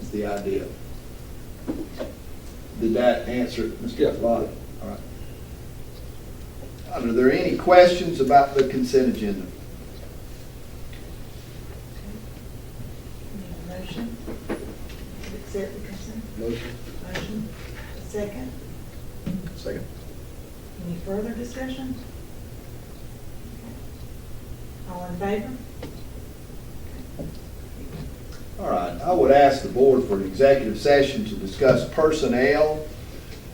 is the idea. Did that answer, it, Yeah. Mr. Flott? All right. Are there any questions about the consent agenda? Need a Motion? to Accept the consent? Motion. Motion? Second? Second. Any further discussion? All in favor? All right, I would ask the board for an executive session to discuss personnel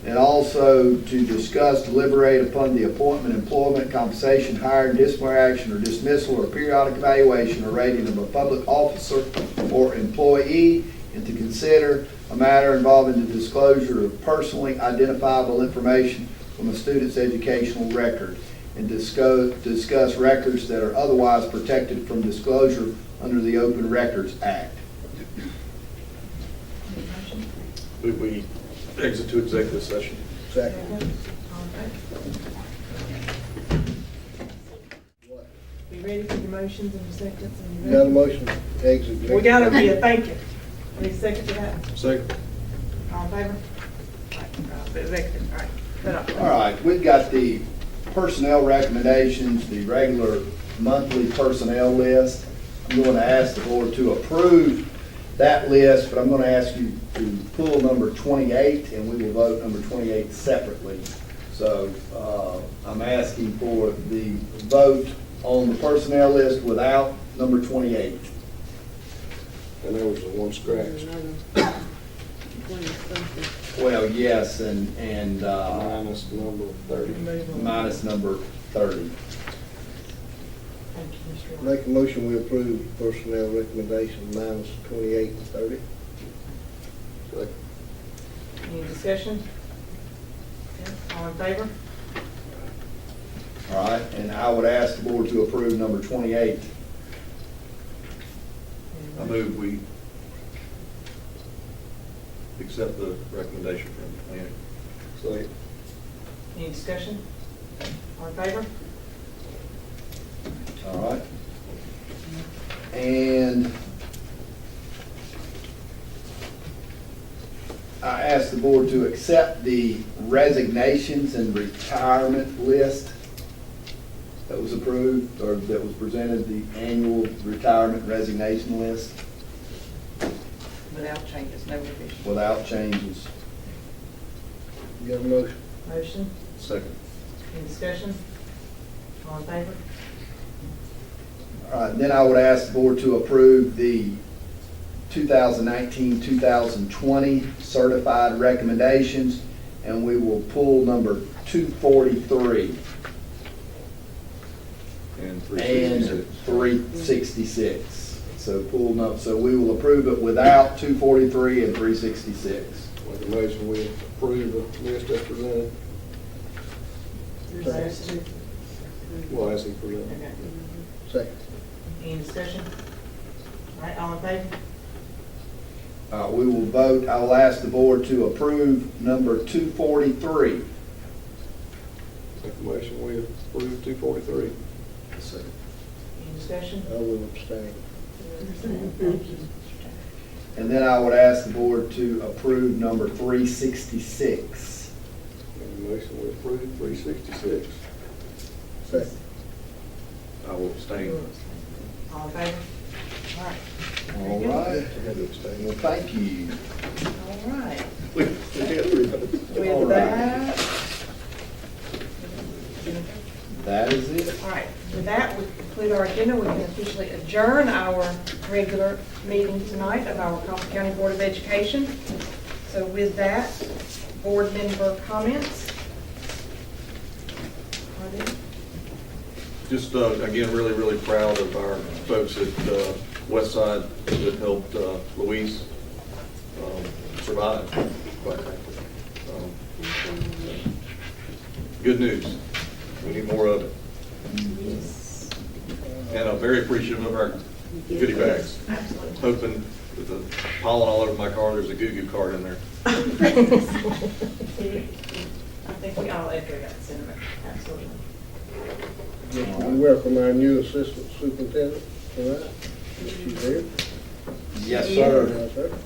and also to discuss, deliberate upon the appointment, employment, compensation, hire, and disciplinary action or dismissal or periodic evaluation or rating of a public officer or employee, and to consider a matter involving the disclosure of personally identifiable information from a student's educational record, and discuss, discuss records that are otherwise protected from disclosure under the Open Records Act. Need a motion? We- We exit to executive session. All in favor? We ready for the motions and the seconds? and the- Got a motion to exit. We got them here, thank you. Any second to that? Second. All in favor? Right, uh, Executive, all right. Put up. All right, we've got the personnel recommendations, the regular monthly personnel list. I'm going to ask the board to approve that list, but I'm going to ask you to pull number 28, and we will vote number 28 separately. So uh, I'm asking for the vote on the personnel list without number 28. And there was the one scratched. Well, yes, and, and uh, Minus number thirty. minus number 30. Thank you, Mr. Roy. Make a motion, we approve personnel recommendation minus twenty-eight and thirty. Second. Any discussion? Okay, All in favor? All right, and I would ask the board to approve number 28. I move we accept the recommendation from the planning. Second. Any discussion? All in favor? All right. And I ask the board to accept the resignations and retirement list that was approved, or that was presented, the annual retirement resignation list Without changes, no revision. without changes. Got a motion? Motion, Second. any discussion? All in favor? All right, Uh, then I would ask the board to approve the 2019-2020 certified recommendations, and we will pull number 243 And three and sixty-six. 366. So pull up, so we will approve it without 243 and 366. Make a motion, we approve the list as presented. Discussion. Well, as he presented. Okay. Second. Any discussion? All right, all in favor? Uh, We will vote, I will ask the board to approve number 243. Make a motion, we approve two forty-three. Second. Any discussion? I will abstain. And then I would ask the board to approve number 366. Make a motion, we approve three sixty-six. Second. I will abstain. All in favor? All right. All Very good. right, I had to abstain. well, thank you. All right. We had three votes. All With right. that. That is it. All right, with that, we conclude our agenda. We can officially adjourn our regular meeting tonight of our Coffee County Board of Education. So with that, board member comments? Are there? Just, uh, again, really, really proud of our folks at uh, Westside that helped uh, Louise um, survive. quite frankly. Um, Good news. We need more of it. And I'm very appreciative of our goodie bags. Hoping with the pollen all over my car, there's a goo-goo card in there. I think we all echo that sentiment, absolutely. We welcome our new assistant superintendent, all right? She's here. Yes, Yeah. sir. Yes, sir.